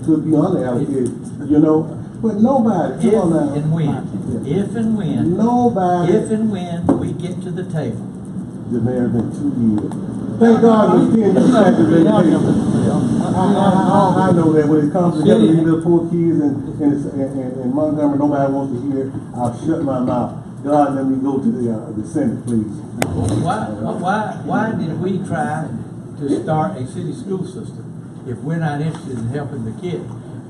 to be unallocated, you know, but nobody, If come on now. and when, if and when, Nobody. if and when we get to the table. The mayor been two years. Thank God we did the second vacation. I, I, I, I know that when it comes to getting these little poor kids and, and, it's- and- and and Montgomery, nobody wants to hear, I'll shut my mouth. God, let me go to the, uh, the Senate, please. Why, why, why did we try to start a city school system if we're not interested in helping the kid?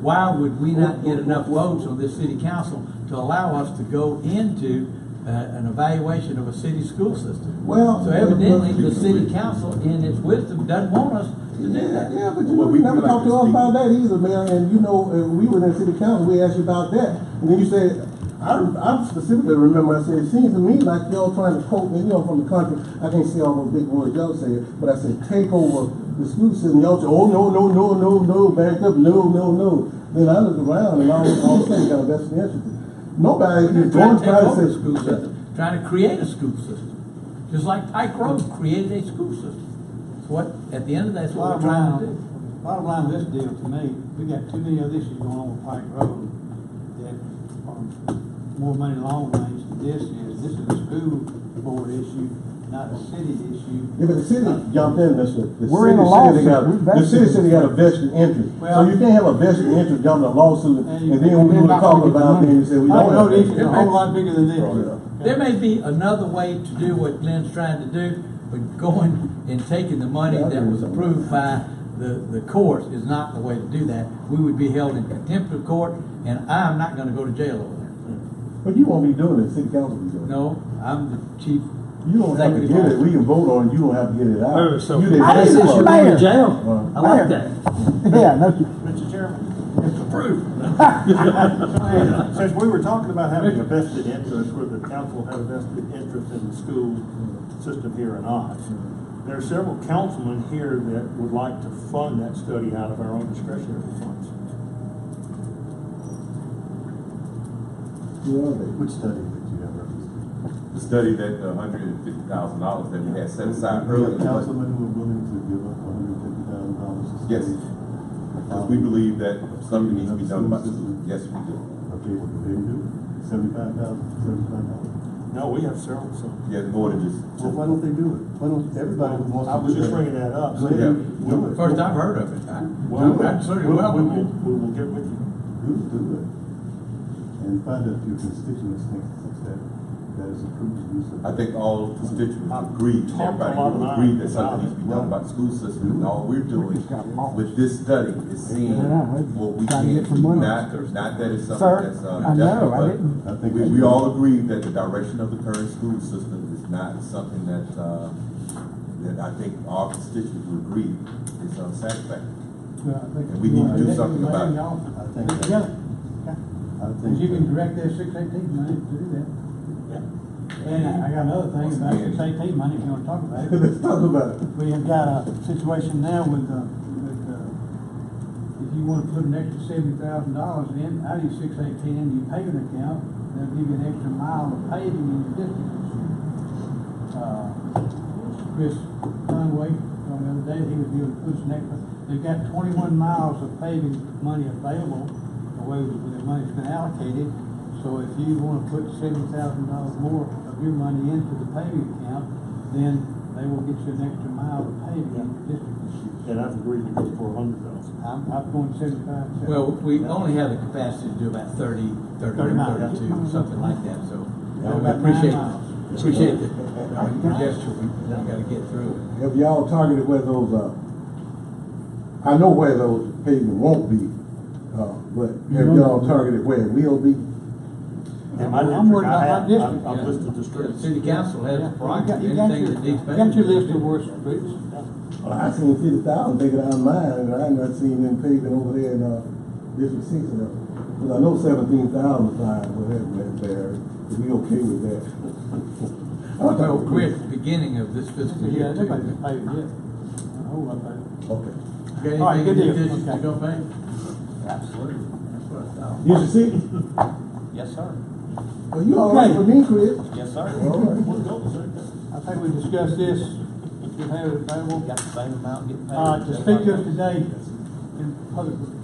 Why would we not get enough votes on this city council to allow us to go into uh, an evaluation of a city school system? Well. So evidently, the city council, in its wisdom, doesn't want us to do Yeah, that. yeah, but you we never talked to us about that either, man, and you know, uh, we were in city council, we asked you about that, and then you said, I, I specifically remember, I said, it seems to me like y'all trying to quote me, you know, from the country, I can't say all those big words y'all say, but I said, take over the school system, y'all said, oh, no, no, no, no, no, back up, no, no, no. Then I oh, looked around and all, all of a sudden, got a vested interest. Nobody, We're you not trying don't to try take to over the say. school system, trying to create a school system. Just like Pike Road created a school system. It's what, at the end of that, that's what we're Bottom trying to line, do. bottom line, of this deal to me, we got too many other issues going on with Pike Road that are more money long range than this is. This is a school board issue, not a city issue. Yeah, but the city jumped in, Mr. The We're in city said they a lawsuit. got- We're The city vested. said they got a vested interest, so Well- you can't have a vested interest jumping a lawsuit, And and you- then we you're were not gonna talking get the about, it, money. and you said we I don't. know have the issue that. is a whole lot bigger than this. There may be another way to do what Glenn's trying to do, but going and taking the money that was approved by the, the courts is not the way to do that. We would be held in contempt of court, and I'm not gonna go to jail over that. But you won't be doing it, city council will be doing it. No, I'm the chief. You don't have to Executive get it, officer. we can vote on it, you don't have to get it out. Oh, so- You the I executive said officer. you made Mayor. in Well, jail. I like Mayor. that. Yeah, no, you- Mr. Chairman, It's approved. Since we were talking about having a vested interest, whether the council had a vested interest in the school system here or not, there are several councilmen here that would like to fund that study out of our own discretionary funds. Who are they? Which study did you have referenced? The study that, the hundred and fifty thousand dollars that we had set aside earlier. Councilmen who were willing to give up hundred and fifty thousand dollars to Yes, because we believe that something needs to be done about this, yes, we do. Okay, what do they do? Seventy-five thousand, seventy-five dollars. No, we have several, so. Yes, more than just. why don't they do it? Why don't everybody who wants to do I was just bringing that up. so- Yeah. Do it. First I've heard of it. I- Well, I certainly we- we welcome will- it. We will get with you. Do, do it. And find out if your constituents think that, that is approved use of. I think all constituents I've agreed, talked a everybody lot of agreed that mine something about needs to be it. done about the school system, and all we're doing with this study is seeing Yeah, I- what we trying to can get some do, money. not, not that it's something sir, that's, I know, uh, I definitely, didn't. I but think. we, we all agree that the direction of the current school system is not something that, uh, that I think all constituents would agree is unsatisfactory. And we need to do something about it. I think, that- I think. Cause you can that- direct that six eighteen money to do that. And I got another thing Once about again. six eighteen money, if you wanna talk about it. Let's talk about it. We have got a situation now with, uh, with, uh, if you wanna put an extra seventy thousand dollars in, out of your six eighteen into your paving account, they'll give you an extra mile of paving in your district. this year. Uh, Chris Conway, on the other day, he was dealing with pushing extra, they've got twenty-one miles of paving money available, the way that the money's been allocated. So if you wanna put seventy thousand dollars more of your money into the paving account, then they will get you an extra mile of paving in your district this year. And I've agreed to go for a hundred thousand. I'm, I'm going seventy-five. Well, we only have the capacity to do about 30, 31, 32, something like that, so. uh, we About Appreciate, nine miles. appreciate the uh, gesture, we we gotta get through it. Have y'all targeted where those, uh, I know where those pavement won't be, uh, but have y'all targeted where it will be? In my I'm district, worried I about my have, I've district, I've yeah. listed the The streets. city council has Yeah, you got- prerogative, you got anything your- that needs. Got your list of worst streets. Well, Oh, I seen fifty thousand taken out of mine, and I ain't not seen them paving over there in, uh, District Six now. Cause I know seventeen thousand fine, but that, that, there, if we okay with that. I Well, thought- we're at the beginning of this fiscal Yeah, year too. nobody's paving yet. A whole lot paved. Okay. You All Got right, good anything in deal. addition to Okay. go pay? Absolutely. That's what I thought. District Six, Yes, sir. well, you all right with me, Chris? Yes, sir. All right. I think we discussed this, we have it available. Got the same amount, get paid. Uh, to speak to us today in public,